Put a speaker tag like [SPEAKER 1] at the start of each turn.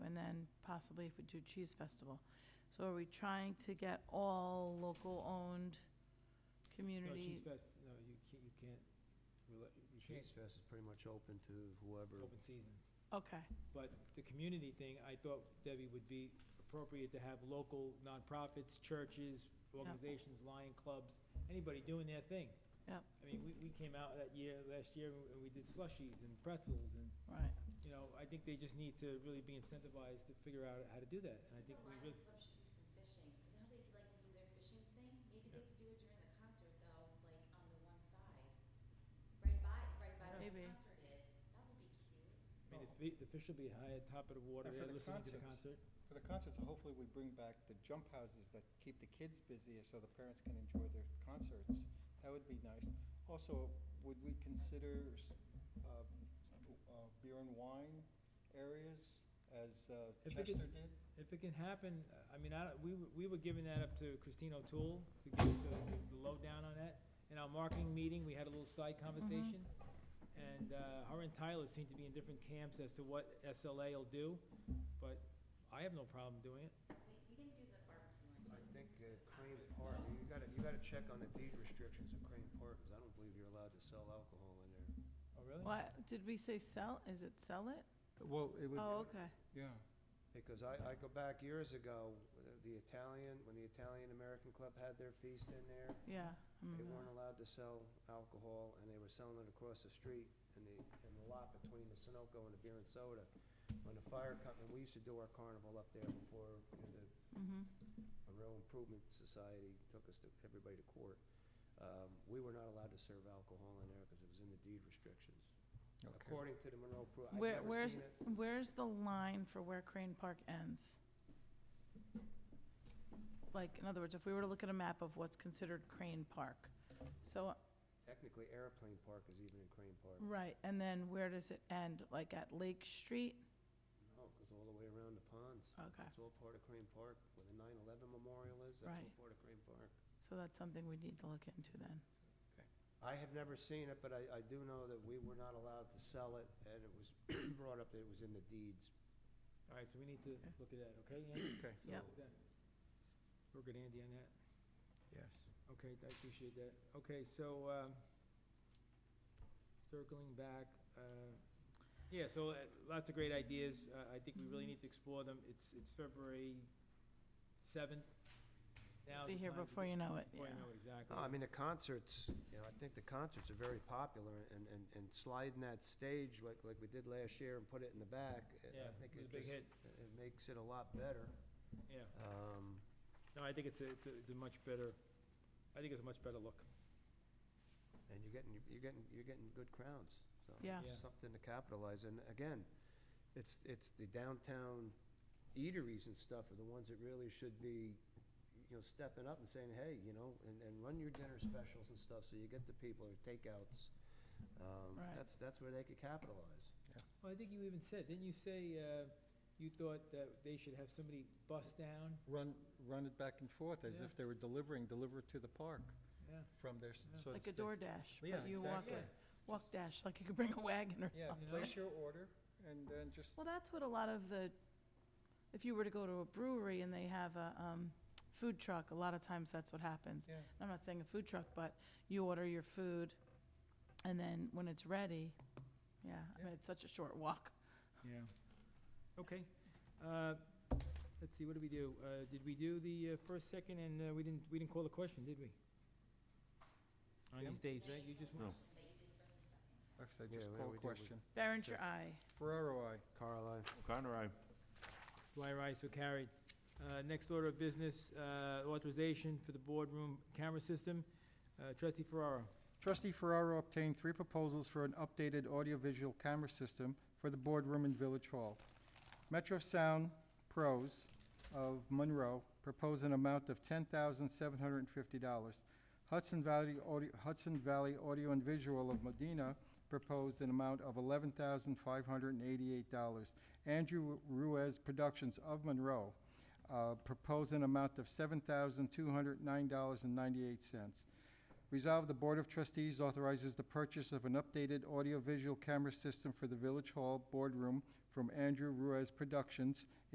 [SPEAKER 1] possibly if we do Cheese Festival. So are we trying to get all local-owned
[SPEAKER 2] No,
[SPEAKER 1] community?
[SPEAKER 2] Cheese Fest, no, you can't, you can't, rela- you can't,
[SPEAKER 3] Cheese Fest is pretty much open to whoever.
[SPEAKER 2] open season.
[SPEAKER 1] Okay,
[SPEAKER 2] But the community thing, I thought, Debbie, would be appropriate to have local nonprofits, churches, organizations, lion clubs, anybody doing their thing.
[SPEAKER 1] Yep.
[SPEAKER 2] I mean, we, we came out that year, last year, and we did slushies and pretzels, and,
[SPEAKER 1] right.
[SPEAKER 2] you know, I think they just need to really be incentivized to figure out how to do that, and I think we really,
[SPEAKER 1] Maybe.
[SPEAKER 2] I mean, the fi- the fish will be high at top of the water,
[SPEAKER 4] And
[SPEAKER 2] they're
[SPEAKER 4] for the
[SPEAKER 2] listening to the
[SPEAKER 4] concerts.
[SPEAKER 2] concert.
[SPEAKER 4] For the concerts, hopefully we bring back the jump houses that keep the kids busy so the parents can enjoy their concerts. That would be nice. Also, would we consider s- uh, uh, beer and wine areas as uh,
[SPEAKER 2] If we could-
[SPEAKER 4] Chester did?
[SPEAKER 2] If it can happen, I mean, I, don't- we, were- we were giving that up to Christine O'Toole to give us the, the lowdown on that. In our marketing meeting, we had a little side conversation, and, uh, her and Tyler seem to be in different camps as to what SLA will do, but I have no problem doing it.
[SPEAKER 3] I think uh, Crane Park, you gotta, you gotta check on the deed restrictions of Crane Park, because I don't believe you're allowed to sell alcohol in there.
[SPEAKER 2] Oh, really?
[SPEAKER 1] What, did we say sell? Is it sell it?
[SPEAKER 4] Well, it would,
[SPEAKER 1] Oh, okay.
[SPEAKER 4] yeah.
[SPEAKER 3] Because I, I go back years ago, uh, the Italian, when the Italian-American Club had their feast in there,
[SPEAKER 1] Yeah. Mm-hmm. I
[SPEAKER 3] they
[SPEAKER 1] remember.
[SPEAKER 3] weren't allowed to sell alcohol, and they were selling it across the street in the, in the lot between the Sunoco and the Beer and Soda. When the fire company, we used to do our carnival up there before you know, the
[SPEAKER 1] Mhm.
[SPEAKER 3] a real improvement society took us to, everybody to court. Um, we were not allowed to serve alcohol in there because it was in the deed restrictions. According to the Monroe Pro, I've
[SPEAKER 1] Where,
[SPEAKER 3] never
[SPEAKER 1] where's,
[SPEAKER 3] seen it.
[SPEAKER 1] where's the line for where Crane Park ends? Like, in other words, if we were to look at a map of what's considered Crane Park, so,
[SPEAKER 3] Technically, Airplane Park is even in Crane Park.
[SPEAKER 1] right, and then where does it end? Like at Lake Street?
[SPEAKER 3] No, it goes all the way around the ponds.
[SPEAKER 1] Okay,
[SPEAKER 3] It's all part of Crane Park, where the 9/11 memorial is, that's all
[SPEAKER 1] Right.
[SPEAKER 3] part of Crane Park.
[SPEAKER 1] so that's something we need to look into then.
[SPEAKER 3] I have never seen it, but I, I do know that we were not allowed to sell it, and it was brought up that it was in the deeds.
[SPEAKER 2] All right, so we need to look at that, okay, Andy?
[SPEAKER 4] Okay.
[SPEAKER 2] So,
[SPEAKER 1] Yep.
[SPEAKER 2] then, We're good, Andy, on that?
[SPEAKER 4] Yes.
[SPEAKER 2] Okay, I appreciate that. Okay, so, um, circling back, uh, yeah, so uh, lots of great ideas. Uh, I think we really need to explore them. It's, it's February seventh. Now
[SPEAKER 1] Be
[SPEAKER 2] the
[SPEAKER 1] here
[SPEAKER 2] time to
[SPEAKER 1] before
[SPEAKER 2] get-
[SPEAKER 1] you know it, yeah.
[SPEAKER 2] Before you know it, exactly.
[SPEAKER 3] No, I mean, the concerts, you know, I think the concerts are very popular, and, and, and sliding that stage like, like we did last year and put it in the back, uh,
[SPEAKER 2] Yeah,
[SPEAKER 3] I think
[SPEAKER 2] it was
[SPEAKER 3] it
[SPEAKER 2] a big
[SPEAKER 3] just,
[SPEAKER 2] hit,
[SPEAKER 3] it makes it a lot better.
[SPEAKER 2] yeah.
[SPEAKER 3] Um,
[SPEAKER 2] No, I think it's a, it's a, it's a much better, I think it's a much better look.
[SPEAKER 3] and you're getting, you're getting, you're getting good crowds, so.
[SPEAKER 1] Yeah.
[SPEAKER 3] it's
[SPEAKER 2] Yeah.
[SPEAKER 3] Something to capitalize, and again, it's, it's the downtown eateries and stuff are the ones that really should be, you know, stepping up and saying, hey, you know, and, and run your dinner specials and stuff, so you get the people, or takeouts. Um,
[SPEAKER 1] Right.
[SPEAKER 3] that's, that's where they could capitalize.
[SPEAKER 2] Well, I think you even said, didn't you say, uh, you thought that they should have somebody bust down?
[SPEAKER 4] Run, run it back and forth as
[SPEAKER 2] Yeah.
[SPEAKER 4] if they were delivering, deliver it to the park
[SPEAKER 2] Yeah.
[SPEAKER 4] from their, s-
[SPEAKER 2] Yeah.
[SPEAKER 4] so to
[SPEAKER 1] Like a
[SPEAKER 4] speak.
[SPEAKER 1] DoorDash,
[SPEAKER 4] Yeah,
[SPEAKER 1] but you walk,
[SPEAKER 4] exactly.
[SPEAKER 2] it.
[SPEAKER 1] walk dash, like you could bring a wagon or
[SPEAKER 4] Yeah,
[SPEAKER 1] something.
[SPEAKER 4] place your order and then just
[SPEAKER 1] Well, that's what a lot of the, if you were to go to a brewery and they have a um, food truck, a lot of times that's what happens.
[SPEAKER 4] Yeah.
[SPEAKER 1] I'm not saying a food truck, but you order your food, and then when it's ready, yeah, I mean, it's such a short walk.
[SPEAKER 2] Yeah. Okay. Uh, Let's see, what did we do? Uh, Did we do the uh, first, second, and uh, we didn't, we didn't call the question, did we? On
[SPEAKER 4] Jim?
[SPEAKER 2] these days, right? You just. No.
[SPEAKER 4] Actually,
[SPEAKER 3] Yeah,
[SPEAKER 4] just
[SPEAKER 3] well,
[SPEAKER 4] call
[SPEAKER 3] we
[SPEAKER 4] a
[SPEAKER 3] did, we-
[SPEAKER 4] question.
[SPEAKER 1] Berenger,
[SPEAKER 3] Sure.
[SPEAKER 1] aye.
[SPEAKER 4] Ferraro, I.
[SPEAKER 3] Carl, I-
[SPEAKER 5] O'Connor, aye.
[SPEAKER 2] Dwyer, aye, so carried. Uh, Next order of business, uh, authorization for the boardroom camera system. Uh, Trustee Ferraro.
[SPEAKER 4] Trustee Ferraro obtained three proposals for an updated audiovisual camera system for the boardroom in Village Hall. Metro Sound Pros of Monroe proposed an amount of ten thousand seven hundred and fifty dollars. Hudson Valley Audio, Hudson Valley Audio and Visual of Medina proposed an amount of eleven thousand five hundred and eighty-eight dollars. Andrew Ruiz Productions of Monroe, uh, proposed an amount of seven thousand two hundred nine dollars and ninety-eight cents. Resolved, the Board of Trustees authorizes the purchase of an updated audiovisual camera system for the Village Hall Boardroom from Andrew Ruiz Productions